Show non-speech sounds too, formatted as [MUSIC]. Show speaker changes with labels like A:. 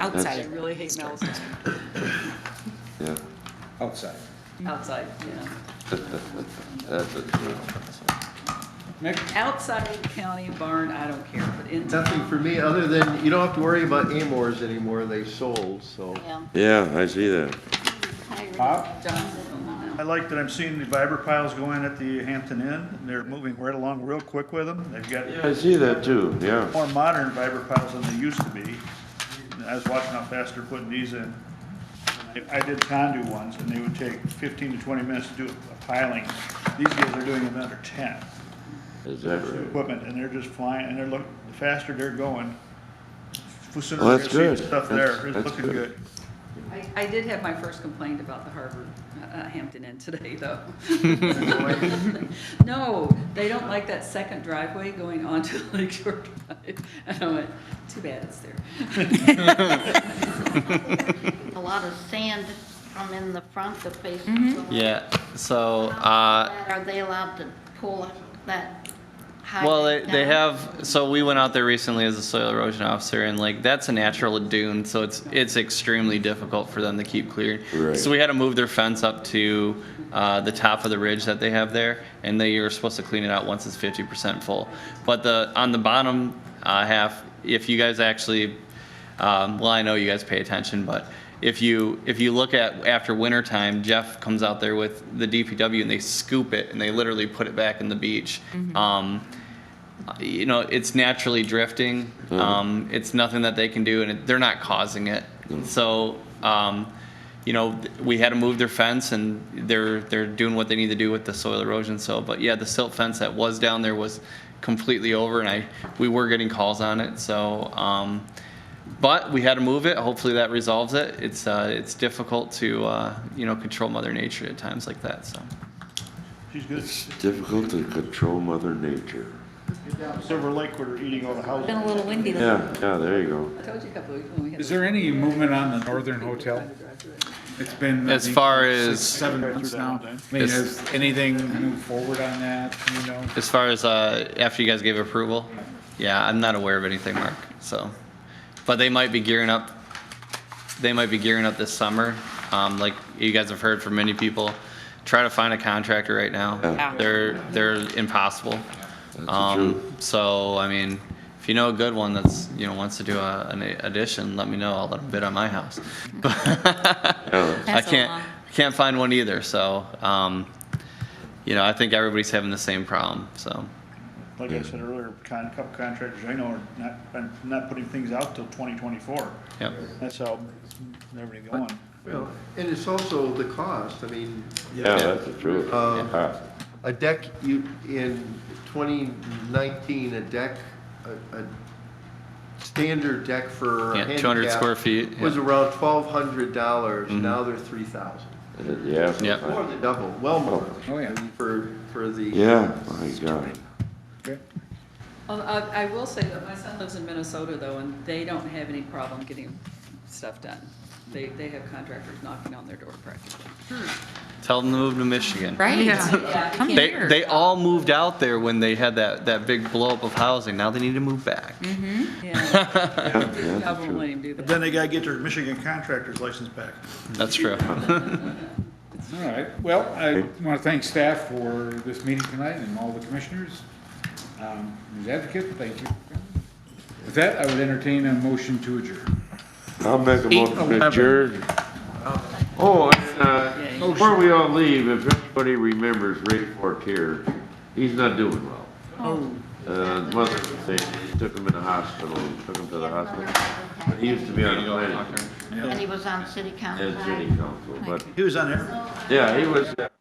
A: Outside, I
B: That's-
A: really hate Mel's,
B: Yeah,
C: outside.
A: outside, yeah.
B: that's it.
C: Nick?
A: Outside county barn, I don't care, but in.
D: Nothing for me, other than you don't have to worry about Amores anymore, they sold, so.
E: Yeah.
B: Yeah, I see that.
E: I agree.
C: Bob?
A: John,
F: I like that I'm seeing the fiber piles go in at the Hampton Inn, and they're moving right along real quick with them. They've got
B: I see that too, yeah.
F: more modern fiber piles than they used to be. And I was watching how fast they're putting these in. I- I did condu ones, and they would take fifteen to twenty minutes to do a piling. These guys are doing it in under ten.
B: Is that
F: Their
B: right?
F: Equipment, and they're just flying, and they're look, the faster they're going, the sooner
B: Well,
F: we're
B: that's
F: gonna see
B: good.
F: stuff
B: That's-
F: there. It's
B: that's
F: looking
B: good.
F: good.
A: I, I did have my first complaint about the Harvard uh, Hampton Inn today,
C: [LAUGHS]
A: though. [LAUGHS] No, they don't like that second driveway going onto [LAUGHS] Lake Shore Drive. And I went, too bad it's there. [LAUGHS]
E: A lot of sand from in the front that faces
G: Mm-hmm.
E: the wall.
H: Yeah. So, uh,
E: Are they allowed to pull that high?
H: well, they, they have. So we went out there recently as a soil erosion officer, and like that's a natural dune, so it's it's extremely difficult for them to keep clearing.
B: Right.
H: So we had to move their fence up to uh, the top of the ridge that they have there, and they are supposed to clean it out once it's 50% full. But the on the bottom uh, half, if you guys actually Um, well, I know you guys pay attention, but if you if you look at after winter time, Jeff comes out there with the DPW and they scoop it and they literally put it back in the beach. Um, you know, it's naturally drifting. Um, it's nothing that they can do, and it, they're not causing it. So, um, you know, th- we had to move their fence, and they're they're doing what they need to do with the soil erosion. So, but yeah, the silt fence that was down there was completely over, and I we were getting calls on it. So. Um, but we had to move it. Hopefully that resolves it. It's uh, it's difficult to uh, you know control Mother Nature at times like that. So
F: She's good.
B: Difficult to control mother nature.
F: Silver Lake, we're eating all the houses.
G: Been a little windy lately.
B: Yeah, yeah, there you go.
A: I told you a couple of weeks when we had.
C: Is there any movement on the Northern Hotel? It's been. I
H: As
C: think,
H: far
C: six,
H: as-
C: Seven months now. I mean,
H: It's-
C: has anything moved forward on that, you know?
H: as far as uh, after you guys gave approval, yeah, I'm not aware of anything, Mark. So, but they might be gearing up. They might be gearing up this summer. Um, like you guys have heard from many people, try to find a contractor right now.
B: Yeah.
H: They're they're impossible.
B: That's the truth.
H: Um, so I mean, if you know a good one that's you know wants to do a, an addition, let me know. I'll let them bid on my house. [LAUGHS]
B: Yeah,
H: I
G: Pass
H: can't
G: along.
H: can't find one either. So, um, you know, I think everybody's having the same problem. So,
F: Like I said earlier, con, couple contractors I know are not, been- not putting things out till twenty twenty-four.
H: yep.
F: That's how everything going.
D: Well, And it's also the cost, I mean,
B: yeah, that's the truth.
D: Um,
B: Yeah.
D: a deck, you, in 2019, a deck, a, a standard deck for a
H: Yeah, 200
D: handicap
H: square feet,
D: Was
H: yeah. Mm-hmm.
D: around $1,200, now they're 3,000.
B: Yeah.
H: Yep.
D: More than double, well more.
C: Oh, yeah.
D: For, for the.
B: Yeah, my God.
A: Although I, I will say that my son lives in Minnesota though, and they don't have any problem getting stuff done. They, they have contractors knocking on their door practically.
H: Tell them to move to Michigan.
A: Yeah.
G: Right? Hmm. Come
H: They
G: here.
H: they all moved out there when they had that that big blow up of housing. Now they need to move back.
G: Mm-hmm.
A: Yeah.
B: Yeah, that's the
A: I won't
B: truth.
A: let him do
F: But
A: that.
F: then they gotta get their Michigan contractor's license back.
H: That's true.
C: All right, well, I want to thank staff for this meeting tonight and all the commissioners. Um, Ms. Advocate, thank you. With that, I would entertain a motion to adjourn.
B: I'll make a motion to
C: 8:11.
B: adjourn. Oh, and,
A: Yeah,
B: uh,
A: you-
B: before we all leave, if anybody remembers Ray Fortier, he's not doing well. Uh, mother thing, took him in the hospital, took him to the hospital. But he used to be on the planning,
E: And he was on city council.
B: as city council, but,
F: He was on there.
B: yeah, he was, uh,